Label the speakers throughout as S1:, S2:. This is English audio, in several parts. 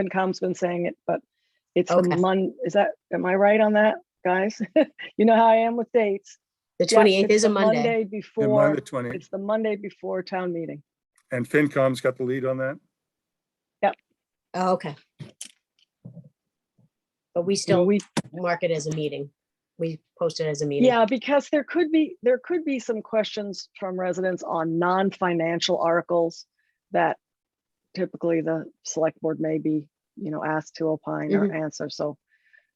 S1: FinCom's been saying it, but it's the
S2: Okay.
S1: Mon, is that, am I right on that, guys? You know how I am with dates.
S2: The
S1: Yeah,
S2: twenty-eighth
S1: it's
S2: is a
S1: the
S2: Monday.
S3: Yeah, mine
S1: Before,
S3: the 20,
S1: it's the Monday before town meeting.
S3: and FinCom's got the lead on that.
S2: Oh, okay. But we
S1: You know,
S2: still
S1: we,
S2: mark it as a meeting. We post it as a meeting.
S1: yeah, because there could be, there could be some questions from residents on non-financial articles that typically the select board may be, you know, asked to opine or
S2: Mm-hmm.
S1: answer. So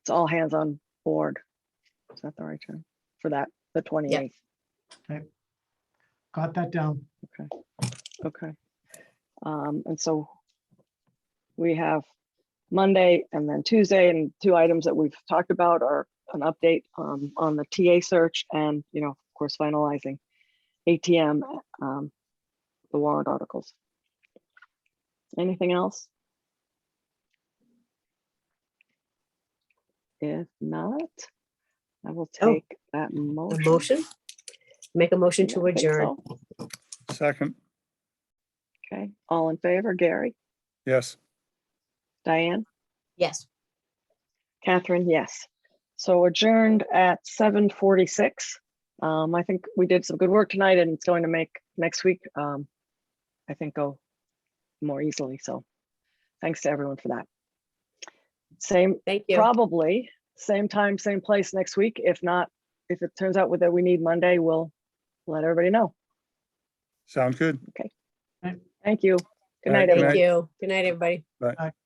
S1: it's all hands on board. Is that the right term for that, the 28th?
S4: Got that down.
S1: Okay. Um, and so we have Monday and then Tuesday and two items that we've talked about are an update um, on the TA search and, you know, of course, finalizing ATM, um, the warrant articles. Anything else? If not, I will
S2: Oh,
S1: take that
S2: A
S1: motion.
S2: motion? Make a motion
S1: I
S2: to
S1: think
S2: adjourn.
S1: so.
S3: Second,
S1: Okay, all in favor, Gary,
S3: yes.
S1: Diane?
S2: Yes.
S1: Catherine, yes. So adjourned at seven forty-six. Um, I think we did some good work tonight and it's going to make next week, um, I think go more easily. So thanks to everyone for that. Same,
S2: Thank you.
S1: probably, same time, same place next week. If not, if it turns out that we need Monday, we'll let everybody know.
S3: Sound good?
S1: Thank you. Good
S3: All
S1: night,
S3: right, good
S1: everyone.
S2: Thank you. Good night, everybody.